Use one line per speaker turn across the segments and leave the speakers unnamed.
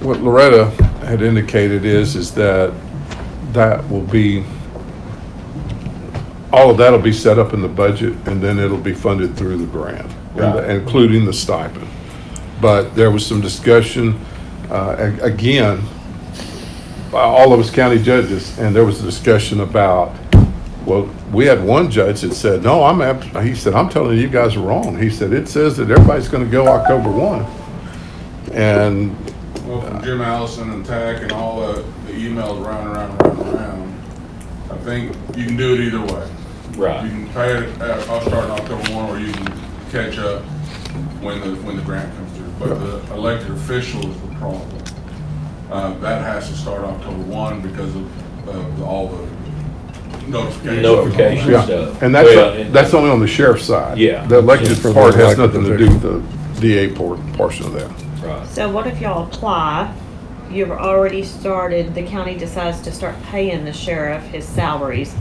what Loretta had indicated is, is that that will be, all of that'll be set up in the budget and then it'll be funded through the grant, and-
Right.
including the stipend. But there was some discussion, uh, a- again, by all of us county judges, and there was a discussion about, well, we had one judge that said, no, I'm, ab- he said, I'm telling you, you guys are wrong. He said, it says that everybody's gonna go October one. And
Well, from Jim Allison and Tack and all the, the emails round, round, round, round, I think you can do it either way. You
Right.
can pay it, uh, I'll start in October one, or you can catch up when the, when the grant comes through. But the elected official is the problem. Uh, that has to start October one because of, of the- all the notifications.
Notifications.
Yeah,
stuff.
and that's,
uh, Well, and-
that's only on the sheriff's side.
Yeah.
The elected
Just for the
part has
elected
nothing to do with the DA por- portion of that.
Right.
So what if y'all apply, you've already started, the county decides to start paying the sheriff his salaries,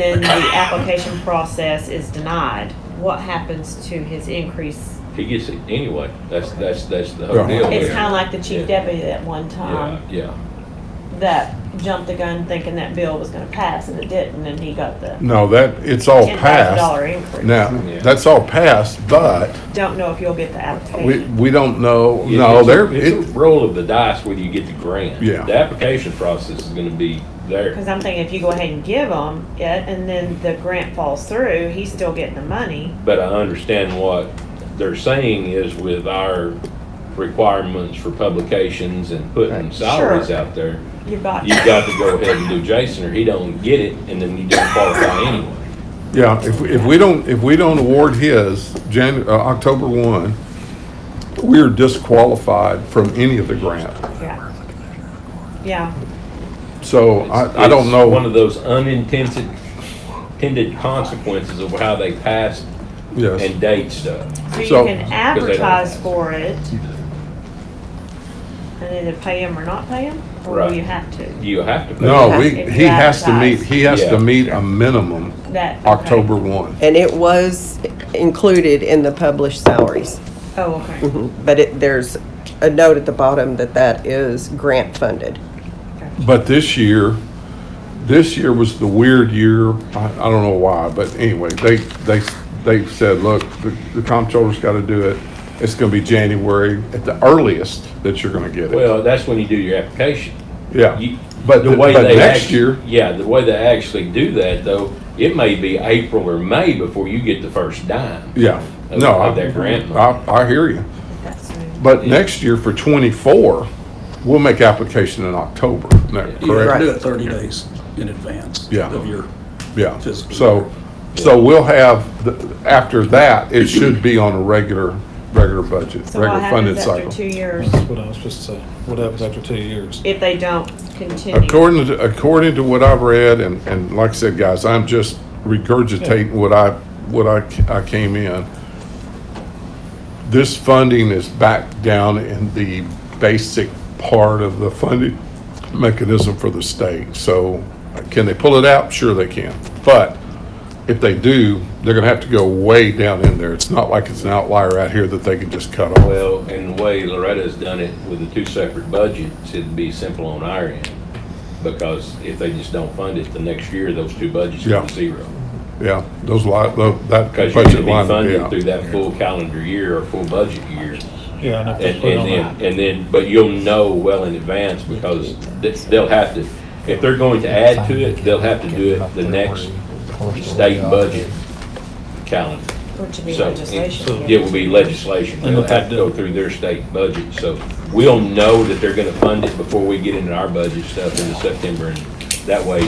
then the application process is denied, what happens to his increase?
He gets it anyway. That's, that's, that's the whole
Yeah.
deal.
It's
there.
kinda like the chief
Yeah.
deputy Um, that one time,
Yeah, yeah.
that jumped the gun thinking that bill was gonna pass, and it didn't, and he got the
No, that, it's all
ten thousand dollar
passed.
increase.
Oh, Now,
Yeah.
that's all passed, but
Don't know if you'll get the
we,
application.
we don't know,
It-
no,
it's a-
there,
It's a
it,
roll of the dice whether you get the grant.
Yeah.
The application process is gonna be there.
Cause I'm thinking if you go ahead and give him it, and then the grant falls through, he's still getting the money.
But I understand what they're saying is with our requirements for publications and putting
Right.
salaries
Sure.
out there,
You've got.
you've got to go ahead and do Jason or he don't get it and then you don't qualify anyway.
yeah, if, if we don't, if we don't award his Jan, uh, October one, we're disqualified from any of the grant.
Yeah. Yeah,
So I, I don't
It's
know.
One of those unintended, intended consequences of how they pass
Yes.
and date stuff.
so you
So-
can advertise for it and either pay him or not pay him, or
Right.
you have to.
You have to. pay
No, we,
If
you
he has to meet,
advertise.
he has
Yeah.
to meet a minimum
That. okay.
October one.
And it was included in the published salaries.
Oh, okay.
But it, there's a note at the bottom that that is grant funded.
But this year, this year was the weird year. I, I don't know why, but anyway, they, they, they said, look, the, the comptroller's gotta do it. It's gonna be January at the earliest that you're gonna get it.
Well, that's when you do your application.
Yeah.
You-
But,
the way
but
they
next
actu-
year,
Yeah, the way they actually do that though, it may be April or May before you get the first dime.
yeah,
Of-
no,
of their grant
I,
money.
I, I hear you.
That's soon.
But next year for twenty-four, we'll make application in October, isn't that
You have
correct?
to do it 30 days in advance
Yeah.
of your,
Yeah,
Physical.
so, so we'll have, the- after that, it should be on a regular, regular budget,
So
regular
what
funded
happens
cycle.
after
Mm-hmm.
two years
What I was supposed to say, what happens after two years?
if they don't continue?
According to, according to what I've read, and, and like I said, guys, I'm just regurgitating what I, what I, c- I came in. This funding is back down in the basic part of the funding mechanism for the state. So can they pull it out? Sure they can. But if they do, they're gonna have to go way down in there. It's not like it's an outlier out here that they can just cut off.
Well, and the way Loretta's done it with the two separate budgets, it'd be simple on our end. Because if they just don't fund it, the next year, those two budgets
Yeah.
are zero.
Yeah, those li, tho- that
Because
budget
you're gonna
line
be
will be
funded
out.
through that full calendar year or full budget year.
Yeah, and if they
And,
put it on
and
that.
then, and then, but you'll know well in advance because th- they'll have to, if they're going to add to it, they'll have to do it the next state budget calendar.
Which would be
So,
legislation.
It will be legislation.
And
They'll
what they
have to go
do.
through their state budget, so we'll know that they're gonna fund it before we get into our budget stuff in September. And that way,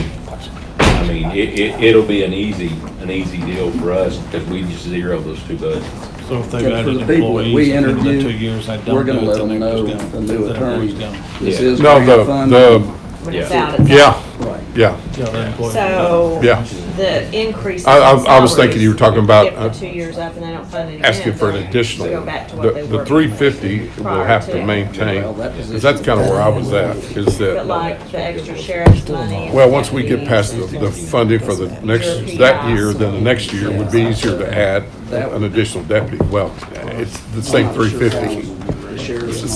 I mean, it, it, it'll be an easy, an easy deal for us because we just zero those two budgets.
So if they've
Yeah, for
added
the people that
employees
we
at the end of the two
interview,
years, they don't
we're going
do
to
it,
let
then
them
they're
know,
just
the
gonna-
new
then
attorney,
everybody's gone.
this
Yeah.
is
No, the,
grant funded.
the,
When it's
Yeah.
out, it's out.
yeah,
Right.
yeah,
Yeah, their employees are gone.
So.
yeah.
The increase.
I- I-
in
I was thinking you were talking about,
salaries, If
uh,
the two years up and they don't fund it again.
asking for an
they'll
additional.
Go back to what they
The,
were.
the three fifty will
prior
have
to.
to maintain,
Well, that
'cause that's kind of where I was at, is
But
that,
like the extra sheriff's money.
well, once we get past the, the funding for the next, that year, then the next year would be easier to add an additional deputy. Well, it's the same
I'm not sure
three
if that
fifty.
was the sheriff's